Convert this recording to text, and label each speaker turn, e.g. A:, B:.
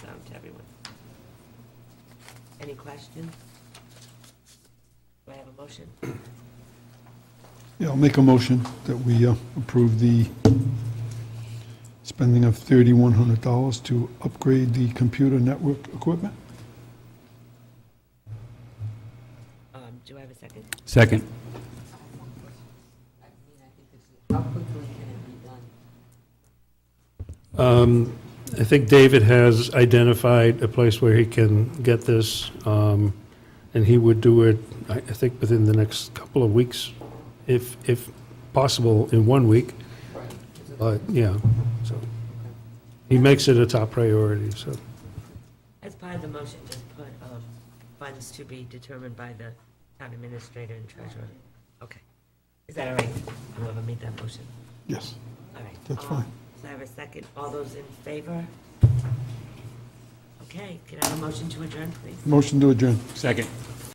A: to everyone. Any questions? Do I have a motion?
B: Yeah, I'll make a motion that we uh, approve the spending of $3,100 to upgrade the computer network equipment.
A: Um, do I have a second?
C: Second.
D: I mean, I think this is, how quickly can it be done?
C: Um, I think David has identified a place where he can get this, um, and he would do it, I I think, within the next couple of weeks, if, if possible, in one week,
D: Right.
C: but, yeah, so. He makes it a top priority, so.
A: As part of the motion, just put, um, funds to be determined by the town administrator and treasurer. Okay. Is that all right? Whoever made that motion.
B: Yes,
A: All right.
B: That's
A: Um,
B: fine.
A: So I have a second. All those in favor? Okay, can I have a motion to adjourn, please?
B: motion to adjourn.
C: Second.